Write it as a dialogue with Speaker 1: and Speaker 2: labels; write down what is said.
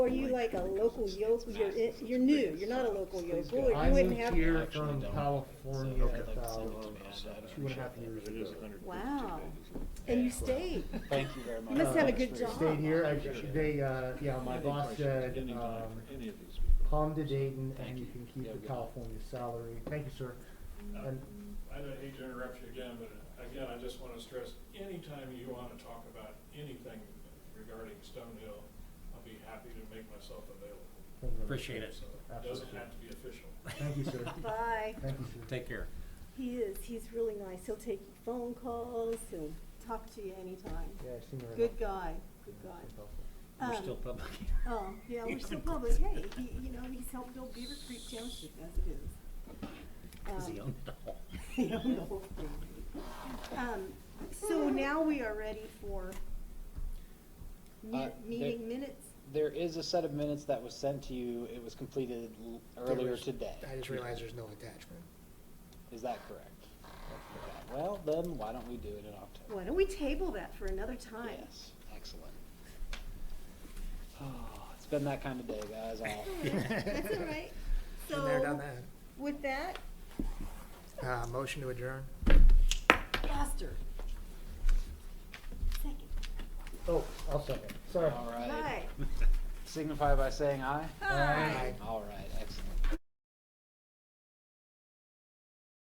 Speaker 1: Are you like a local yokel? You're, it- you're new, you're not a local yokel, or
Speaker 2: I
Speaker 1: you wouldn't
Speaker 2: moved
Speaker 1: have.
Speaker 2: here
Speaker 3: Actually
Speaker 2: from
Speaker 3: don't.
Speaker 2: California
Speaker 3: So, okay.
Speaker 2: about two and a half years
Speaker 4: It is
Speaker 2: ago.
Speaker 4: 152
Speaker 1: Wow.
Speaker 4: pages.
Speaker 1: And you stayed.
Speaker 3: Thank you very much.
Speaker 1: You must have a good
Speaker 3: Thanks for
Speaker 1: job.
Speaker 3: your-
Speaker 2: Uh, Stayed here, I, they, uh, yeah, my
Speaker 4: Any
Speaker 2: boss
Speaker 4: questions at
Speaker 2: said,
Speaker 4: any time
Speaker 2: um,
Speaker 4: for any of these people?
Speaker 2: come to Dayton
Speaker 3: Thank
Speaker 2: and you
Speaker 3: you.
Speaker 2: can
Speaker 3: Yeah,
Speaker 2: keep the
Speaker 3: good.
Speaker 2: California salary. Thank you, sir. And
Speaker 5: I don't hate to interrupt you again, but uh, again, I just want to stress, anytime you want to talk about anything regarding Stonehill, I'll be happy to make myself available.
Speaker 6: Appreciate it.
Speaker 5: So it doesn't have to be official.
Speaker 2: Thank you, sir.
Speaker 1: Bye.
Speaker 2: Thank you, sir.
Speaker 6: Take care.
Speaker 1: He is, he's really nice. He'll take your phone calls, he'll talk to you anytime.
Speaker 2: Yeah, I seen her.
Speaker 1: Good guy, good
Speaker 2: Yeah, she's
Speaker 1: guy.
Speaker 2: helpful.
Speaker 6: We're
Speaker 1: Um,
Speaker 6: still public.
Speaker 1: Oh, yeah, we're still public, hey, he, you know, he's helped build Beaver Creek Township as it is.
Speaker 6: Does he
Speaker 1: Um,
Speaker 6: own it all?
Speaker 1: I don't know. Um, So now we are ready for me-
Speaker 3: Uh,
Speaker 1: meeting
Speaker 3: there-
Speaker 1: minutes.
Speaker 3: There is a set of minutes that was sent to you. It was completed l- earlier today.
Speaker 7: I just realized there's no attachment.
Speaker 3: Is that correct? Okay. Well, then why don't we do it in October?
Speaker 1: Why don't we table that for another time?
Speaker 3: Yes, excellent. Oh, It's been that kind of day, guys. I'll-
Speaker 1: That's all right.
Speaker 7: Been there, done
Speaker 1: So
Speaker 7: that.
Speaker 1: with that,
Speaker 7: Uh, motion to adjourn.
Speaker 1: faster. Second.
Speaker 2: Oh, I'll second. Sorry.
Speaker 3: All right.
Speaker 1: Hi.
Speaker 3: Signify by saying aye.
Speaker 1: Hi.
Speaker 7: Aye.
Speaker 3: All right.